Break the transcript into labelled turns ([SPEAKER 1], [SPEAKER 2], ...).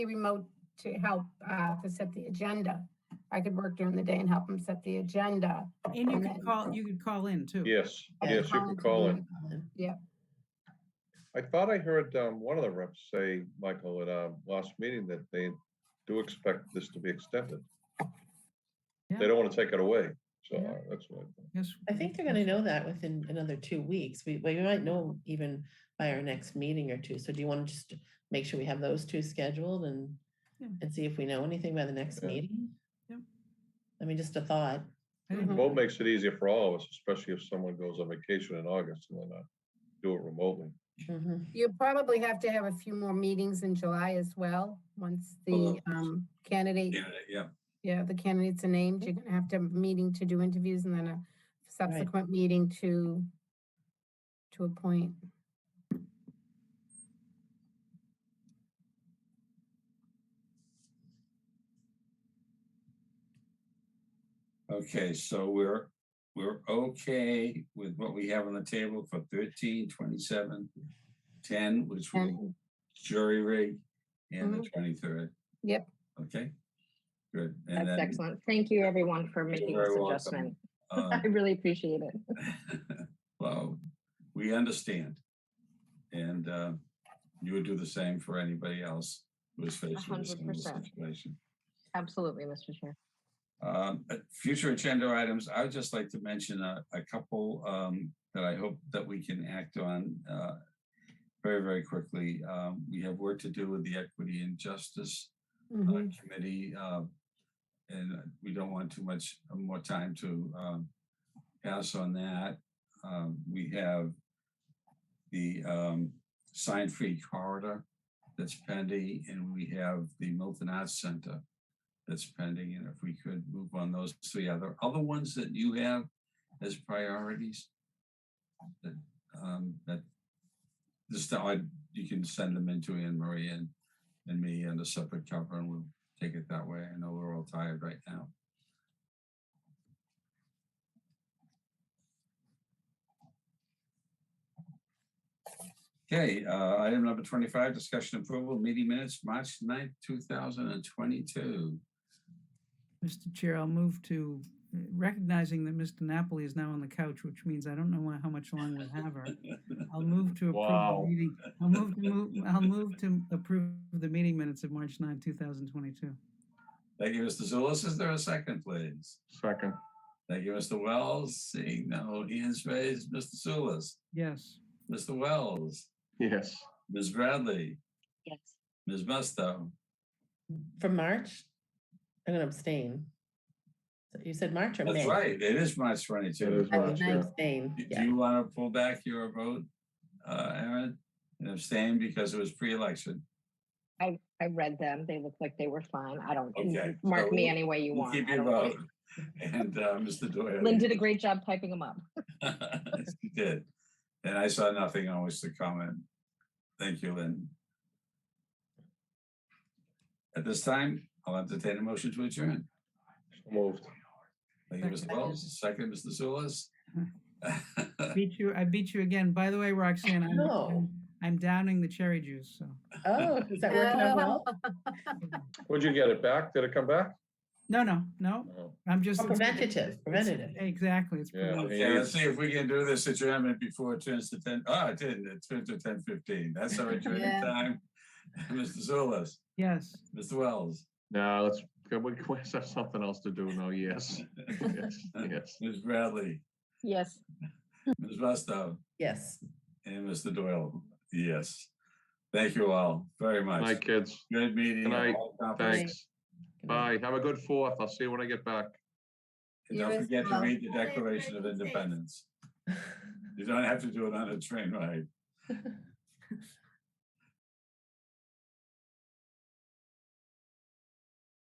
[SPEAKER 1] remote to help uh, to set the agenda. I could work during the day and help him set the agenda.
[SPEAKER 2] And you
[SPEAKER 1] And
[SPEAKER 2] could
[SPEAKER 1] then-
[SPEAKER 2] call, you could call in too.
[SPEAKER 3] Yes, yes, you can call in.
[SPEAKER 1] Yeah.
[SPEAKER 3] I thought I heard um, one of the reps say, Michael, at our last meeting that they do expect this to be extended. They
[SPEAKER 2] Yeah.
[SPEAKER 3] don't want to take it away, so
[SPEAKER 2] Yeah.
[SPEAKER 3] uh, that's what. I thought.
[SPEAKER 2] Yes.
[SPEAKER 4] I think they're gonna know that within another two weeks. We, we might know even by our next meeting or two. So do you want to just make sure we have those two scheduled and,
[SPEAKER 2] Yeah.
[SPEAKER 4] and see if we know anything by the next
[SPEAKER 3] Yeah.
[SPEAKER 4] meeting?
[SPEAKER 2] Yeah.
[SPEAKER 4] I mean, just a thought.
[SPEAKER 2] I didn't-
[SPEAKER 1] Mhm.
[SPEAKER 3] Remote makes it easier for all of us, especially if someone goes on vacation in August and then uh, do it remotely.
[SPEAKER 4] Mhm.
[SPEAKER 1] You probably have to have a few more meetings in July as well, once the um, candidate,
[SPEAKER 5] Yeah,
[SPEAKER 1] yeah, the candidates are named. You're gonna have to have a meeting to do interviews and then a subsequent meeting to to appoint.
[SPEAKER 5] okay, so we're, we're okay with what we have on the table for 13, 27, 10, which will
[SPEAKER 1] And
[SPEAKER 5] jury rig and
[SPEAKER 6] Mm-hmm.
[SPEAKER 5] the twenty-third.
[SPEAKER 1] Yep.
[SPEAKER 5] Okay, good. And
[SPEAKER 6] That's
[SPEAKER 5] then,
[SPEAKER 6] excellent. Thank you, everyone, for
[SPEAKER 5] You're
[SPEAKER 6] making
[SPEAKER 5] very
[SPEAKER 6] this
[SPEAKER 5] welcome.
[SPEAKER 6] adjustment.
[SPEAKER 5] uh,
[SPEAKER 6] I really appreciate it.
[SPEAKER 5] well, we understand. And uh, you would do the same for anybody else who is facing a
[SPEAKER 6] hundred
[SPEAKER 5] similar
[SPEAKER 6] percent.
[SPEAKER 5] situation.
[SPEAKER 6] Absolutely, Mr. Chair.
[SPEAKER 5] Um, uh, Future agenda items, I would just like to mention a, a couple um, that I hope that we can act on uh, very, very quickly. Um, We have work to do with the Equity and Justice uh,
[SPEAKER 1] mhm,
[SPEAKER 5] Committee. uh, And uh, we don't want too much uh, more time to um, pass on that. Um, We have the um, sign-free corridor that's pending, and we have the Milton Arts Center that's pending, and if we could move on those three other, other ones that you have as priorities? That, um, that, just, I, you can send them into Anne Marie and, and me and a separate cover, and we'll take it that way. I know we're all tired right now. Okay, uh, item number twenty-five, discussion approval, meeting minutes, March 9th, two thousand and twenty-two.
[SPEAKER 2] Mr. Chair, I'll move to uh, recognizing that Mr. Napoli is now on the couch, which means I don't know why- how much longer we'll have her. I'll move to approve the
[SPEAKER 3] Wow.
[SPEAKER 2] meeting. I'll move to move, I'll move to approve the meeting minutes of March 9, 2022.
[SPEAKER 5] Thank you, Mr. Zulus. Is there a second, please?
[SPEAKER 3] Second.
[SPEAKER 5] Thank you, Mr. Wells. Seeing no hands raised, Mr. Zulus,
[SPEAKER 2] Yes.
[SPEAKER 5] Mr. Wells,
[SPEAKER 3] Yes.
[SPEAKER 5] Ms. Bradley,
[SPEAKER 6] Yes.
[SPEAKER 5] Ms. Musto.
[SPEAKER 4] From March, I'm gonna abstain. So You said March or May?
[SPEAKER 5] That's right. It is March
[SPEAKER 3] It
[SPEAKER 5] twenty-two.
[SPEAKER 3] is
[SPEAKER 4] I
[SPEAKER 3] March,
[SPEAKER 4] would
[SPEAKER 3] yeah.
[SPEAKER 4] abstain,
[SPEAKER 5] Do- Do
[SPEAKER 4] yeah.
[SPEAKER 5] you want to pull back your vote, uh, Aaron? And abstain because it was pre-election.
[SPEAKER 6] I, I read them. They looked like they were fine. I don't, you
[SPEAKER 5] Okay,
[SPEAKER 6] mark
[SPEAKER 5] so
[SPEAKER 6] me any way you
[SPEAKER 5] We'll
[SPEAKER 6] want.
[SPEAKER 5] Keep
[SPEAKER 6] I
[SPEAKER 5] your
[SPEAKER 6] don't care.
[SPEAKER 5] vote. And, uh, Mr. Doyle.
[SPEAKER 6] Lynn did a great job typing them up.
[SPEAKER 5] She did. And I saw nothing on which to comment. Thank you, Lynn. At this time, I'll entertain a motion to adjourn.
[SPEAKER 3] Moved.
[SPEAKER 5] Thank you, Mr.
[SPEAKER 2] Second.
[SPEAKER 5] Wells. Second, Mr. Zulus.
[SPEAKER 2] Beat you, I beat you again. By the way, Roxanne, I'm-
[SPEAKER 4] No.
[SPEAKER 2] I'm, I'm downing the cherry juice, so.
[SPEAKER 4] Oh, is that working out well?
[SPEAKER 3] Would you get it back? Did it come back?
[SPEAKER 2] No, no, no,
[SPEAKER 3] No.
[SPEAKER 2] I'm just.
[SPEAKER 4] Oh, Preventative, preventative.
[SPEAKER 2] Exactly. It's
[SPEAKER 3] Yeah.
[SPEAKER 1] Oh,
[SPEAKER 2] preventive.
[SPEAKER 5] Okay, let's see if we can do this adjournment before it turns to ten. Oh, it didn't. It turned to ten fifteen. That's our
[SPEAKER 1] Yeah.
[SPEAKER 5] adjournment time. Mr. Zulus,
[SPEAKER 2] Yes.
[SPEAKER 5] Mr. Wells,
[SPEAKER 3] No, let's, can we can we have something else to do? No, yes. Yes, yes.
[SPEAKER 5] Ms. Bradley,
[SPEAKER 6] Yes.
[SPEAKER 5] Ms. Musto.
[SPEAKER 4] Yes.
[SPEAKER 5] And Mr. Doyle, yes. Thank you all very
[SPEAKER 3] Good Night,
[SPEAKER 5] much.
[SPEAKER 3] kids.
[SPEAKER 5] Good meeting.
[SPEAKER 3] Good night.
[SPEAKER 5] all accomplished.
[SPEAKER 3] Thanks. Bye. Have a good fourth. I'll see you when I get back.
[SPEAKER 5] And
[SPEAKER 1] You
[SPEAKER 5] don't
[SPEAKER 1] as
[SPEAKER 5] forget to
[SPEAKER 1] well.
[SPEAKER 5] read the Declaration of Independence. You don't have to do it on a train ride.